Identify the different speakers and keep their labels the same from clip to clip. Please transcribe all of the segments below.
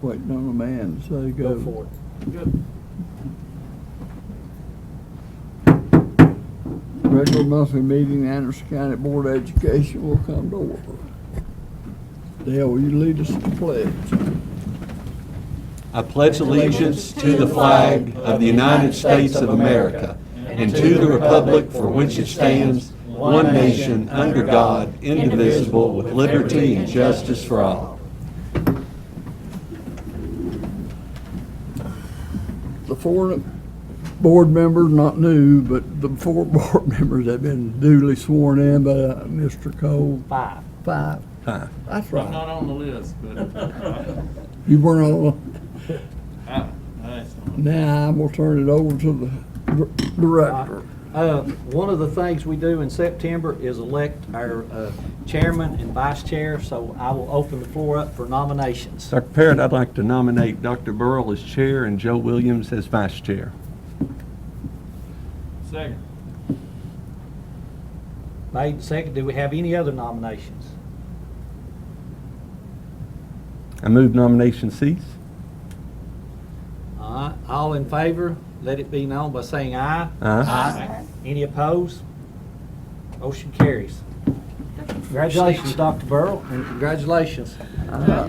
Speaker 1: waiting on a man, so go.
Speaker 2: Go for it. Good.
Speaker 1: Regular monthly meeting, Anderson County Board of Education will come to order. Dale, will you lead us in the pledge?
Speaker 3: I pledge allegiance to the flag of the United States of America and to the republic for which it stands, one nation, under God, indivisible, with liberty and justice for all.
Speaker 1: The four board members, not new, but the four board members have been duly sworn in by uh, Mr. Cole.
Speaker 2: Five.
Speaker 1: Five. That's
Speaker 4: I'm not
Speaker 1: right.
Speaker 4: on the list, but
Speaker 1: You weren't on,
Speaker 4: I, I,
Speaker 1: now I'm gonna turn it over to the dir- director.
Speaker 2: Uh, One of the things we do in September is elect our uh, chairman and vice chair, so I will open the floor up for nominations.
Speaker 3: Dr. Parrott, I'd like to nominate Dr. Burl as chair and Joe Williams as vice chair.
Speaker 4: second,
Speaker 2: Made and second, do we have any other nominations?
Speaker 3: I move nomination cease.
Speaker 2: All right, all in favor, let it be known by saying aye.
Speaker 3: Aye.
Speaker 2: Any opposed? Motion carries. Congratulations, Dr. Burrow, and congratulations.
Speaker 1: I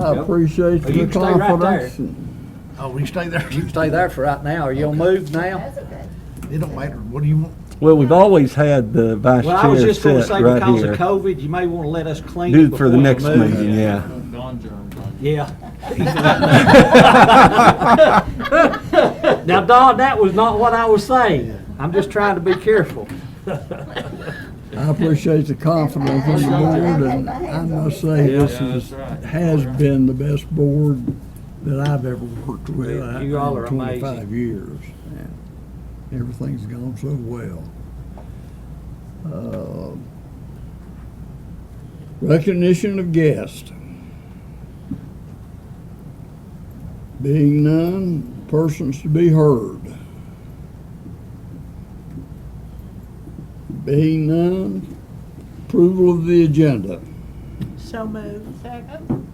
Speaker 1: appreciate
Speaker 2: Well, you
Speaker 1: the
Speaker 2: can stay right there.
Speaker 1: confidence. and-
Speaker 5: Oh, we stay there.
Speaker 2: You can stay there for right now. Are you gonna move now?
Speaker 6: That's okay.
Speaker 5: It don't matter. What do you want?
Speaker 3: Well, we've always had the vice
Speaker 2: Well, I was
Speaker 3: chair
Speaker 2: just gonna
Speaker 3: set
Speaker 2: say, because of
Speaker 3: right
Speaker 2: COVID, you may wanna let us clean
Speaker 3: Do
Speaker 2: it
Speaker 3: it for
Speaker 2: before
Speaker 3: the
Speaker 2: you
Speaker 3: next
Speaker 2: move.
Speaker 3: meeting, yeah.
Speaker 4: gone germs. on you.
Speaker 2: Yeah.
Speaker 3: here.
Speaker 2: Now, Don, that was not what I was saying. I'm just trying to be careful.
Speaker 1: I appreciate the confidence in the board, and I must say, this
Speaker 4: Yeah,
Speaker 1: is,
Speaker 4: that's right.
Speaker 1: has been the best board that I've ever worked with
Speaker 2: You
Speaker 1: in
Speaker 2: all are amazing.
Speaker 1: twenty-five years. and Everything's gone so well. Uh, Recognition of guests. Being none, persons to be heard. Being none, approval of the agenda.
Speaker 6: So moved. Second.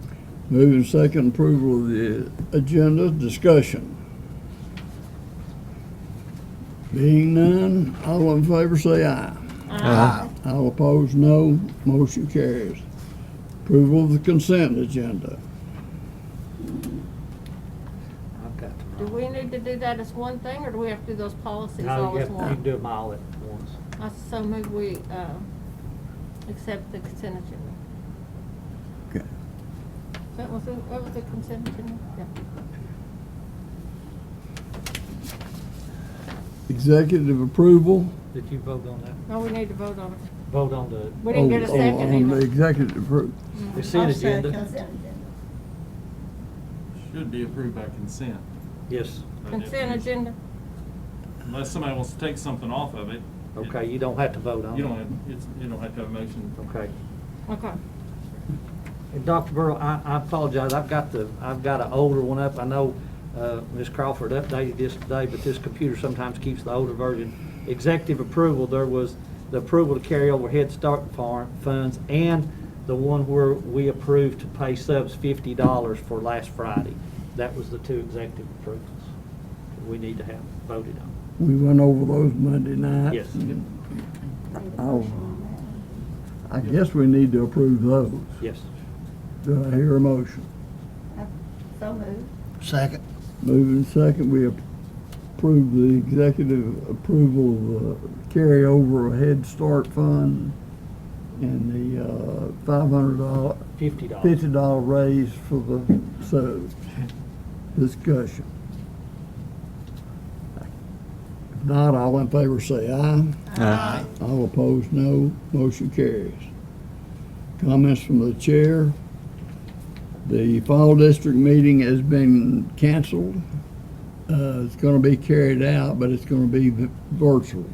Speaker 1: Moving second, approval of the agenda, discussion. Being none, all in favor say aye.
Speaker 3: Aye.
Speaker 1: All opposed, no. Motion carries. Approval of the consent agenda.
Speaker 2: I've got to-
Speaker 6: Do we need to do that as one thing, or do we have to do those policies
Speaker 2: No,
Speaker 6: all
Speaker 2: you
Speaker 6: as
Speaker 2: have- you can
Speaker 6: one?
Speaker 2: do them all at once.
Speaker 6: I so move we, uh, accept the consent agenda.
Speaker 1: Okay.
Speaker 6: That was, the- what was the consent agenda? Yeah.
Speaker 1: Executive approval.
Speaker 2: Did you vote on that?
Speaker 6: No, we need to vote on it.
Speaker 2: Vote on the
Speaker 6: We didn't get a
Speaker 1: Oh, oh,
Speaker 6: second
Speaker 1: On the
Speaker 6: either. Mm-hmm.
Speaker 1: executive approval.
Speaker 2: consent agenda?
Speaker 4: Should be approved by consent.
Speaker 2: Yes.
Speaker 4: by
Speaker 6: Consent
Speaker 4: definition.
Speaker 6: agenda,
Speaker 4: Unless somebody wants to take something off of it. it-
Speaker 2: Okay, you don't have to vote on it.
Speaker 4: You don't, have- it's, you don't have to have a motion.
Speaker 2: Okay.
Speaker 6: okay.
Speaker 2: And Dr. Burrow, I, I apologize, I've got the, I've got an older one up. I know, uh, Ms. Crawford updated this today, but this computer sometimes keeps the older version. Executive approval, there was the approval to carry over Head Start farm funds and the one where we approved to pay subs fifty dollars for last Friday. That was the two executive approvals that we need to have voted on.
Speaker 1: We went over those Monday night.
Speaker 2: Yes.
Speaker 1: I'll- I guess we need to approve those.
Speaker 2: Yes.
Speaker 1: Do I hear a motion?
Speaker 6: So moved.
Speaker 5: Second.
Speaker 1: Moving second, we approve the executive approval of the carryover Head Start Fund and the uh, $500,
Speaker 2: Fifty dollars.
Speaker 1: $50 raise for the subs. Discussion. If not, all in favor say aye.
Speaker 3: Aye.
Speaker 1: All opposed, no. Motion carries. Comments from the chair. The fall district meeting has been canceled. Uh, It's going to be carried out, but it's going to be vi- virtual.